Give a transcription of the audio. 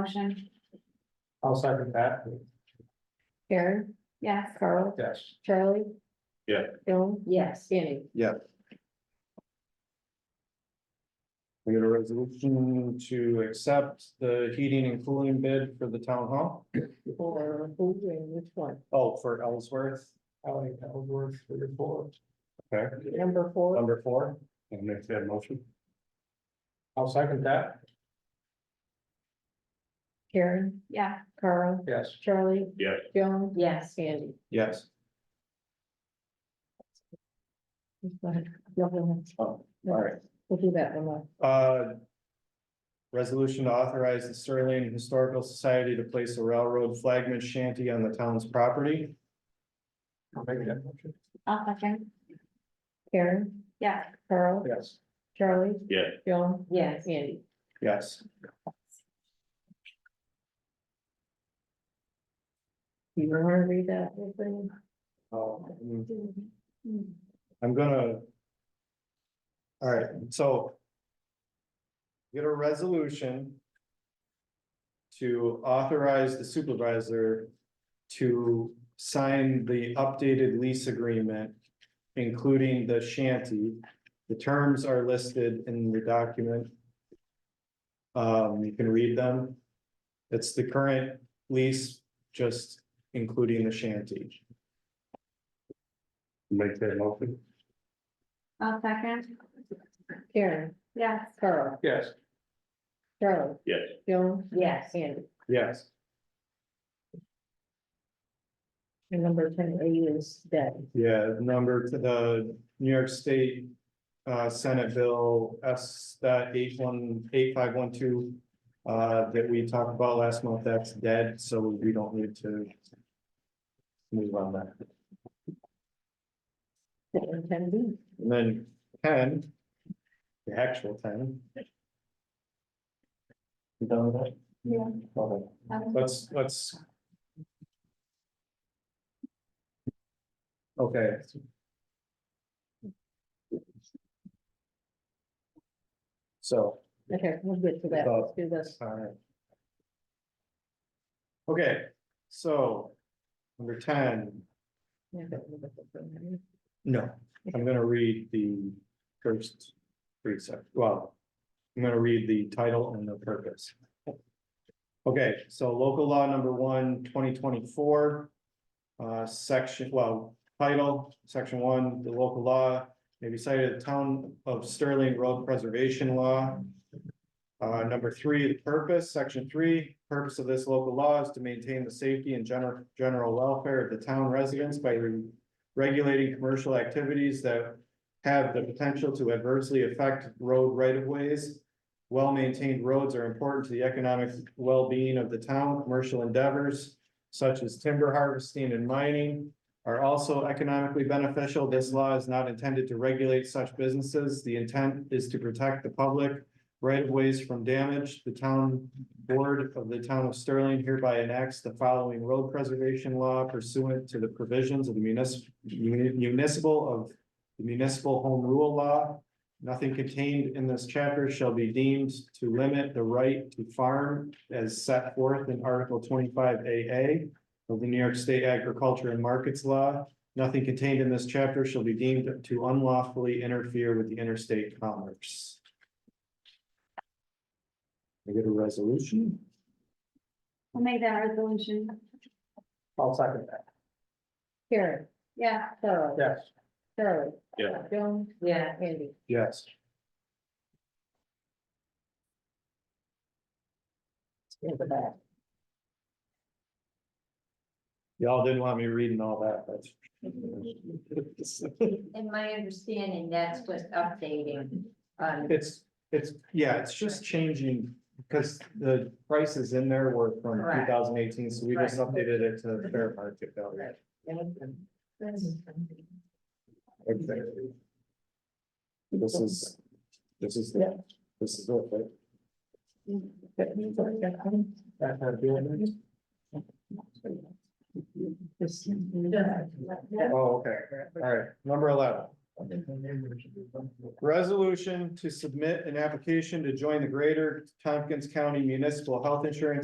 motion? I'll second that, Karen, Yes. Carl, yes. Charlie. Yeah. Bill, Yes. Danny. We got a resolution to accept the heating and cooling bid for the town hall. Or who and which one? Oh, for Ellsworth. Ellie Ellsworth, three or four. Okay, Number four, number four. And make that motion. I'll second that, Karen, Yeah. Carl, yes. Charlie. Yeah. Bill, Yes. Sandy. Yes. Go ahead. You'll do it. Oh, all right. We'll do that one. Uh. Resolution to authorize the Sterling Historical Society to place a railroad flagman shanty on the town's property. I'll make that motion. I'll second. Karen, Yeah. Carl, Yes. Charlie. Yeah. Bill, Yes. Sandy. Yes. Do you want to read that? whole thing? Um, I'm gonna. All right, so. Get a resolution. To authorize the supervisor to sign the updated lease agreement. Including the shanty. The terms are listed in the document. Um, you can read them. It's the current lease, just including the shanty. Make that motion. I'll second. Karen, Yes. Carl, Yes. Charlie. Yes. Bill, Yes. Sandy. Yes. And number ten A is that. Yeah, number to the New York State uh Senate Bill S dot eight one eight five one two. Uh, that we talked about last month, that's dead, so we don't need to. Move on that. Ten B. And then ten. The actual ten. You done with that? Yeah. Okay. Let's, let's. Okay. So. Okay, we'll get to that. Let's do this. Alright. Okay, so. Number ten, no, I'm gonna read the first three sec, well. I'm gonna read the title and the purpose. Okay, so local law number one, 2024, Uh, section, well, title, section one, the local law, maybe cited the town of Sterling Road Preservation Law. Uh, number three, the purpose, section three, purpose of this local law is to maintain the safety and general, general welfare of the town residents by re- regulating commercial activities that have the potential to adversely affect road right-of-ways. Well-maintained roads are important to the economic well-being of the town. Commercial endeavors such as timber harvesting and mining are also economically beneficial. This law is not intended to regulate such businesses. The intent is to protect the public right-of-ways from damage. The town board of the town of Sterling hereby enacts the following road preservation law pursuant to the provisions of the municipal municipal of the municipal home rule law. Nothing contained in this chapter shall be deemed to limit the right to farm as set forth in Article twenty-five AA of the New York State Agriculture and Markets Law. Nothing contained in this chapter shall be deemed to unlawfully interfere with the interstate commerce. I get a resolution? I'll make that resolution. I'll second that. Karen, Yeah. Carl, Yes. Charlie. Yeah. Bill, Yeah. Andy. Yes. in the back. Y'all didn't want me reading all that, but. In my understanding, that's just updating on It's, it's, yeah, it's just changing, because the prices in there were from two Correct. thousand eighteen, so we just Right. updated it to fair market value. Right. Exactly. This is, this is, Yeah. this is it, right? Oh, okay, all right, number eleven. Resolution to submit an application to join the Greater Tompkins County Municipal Health Insurance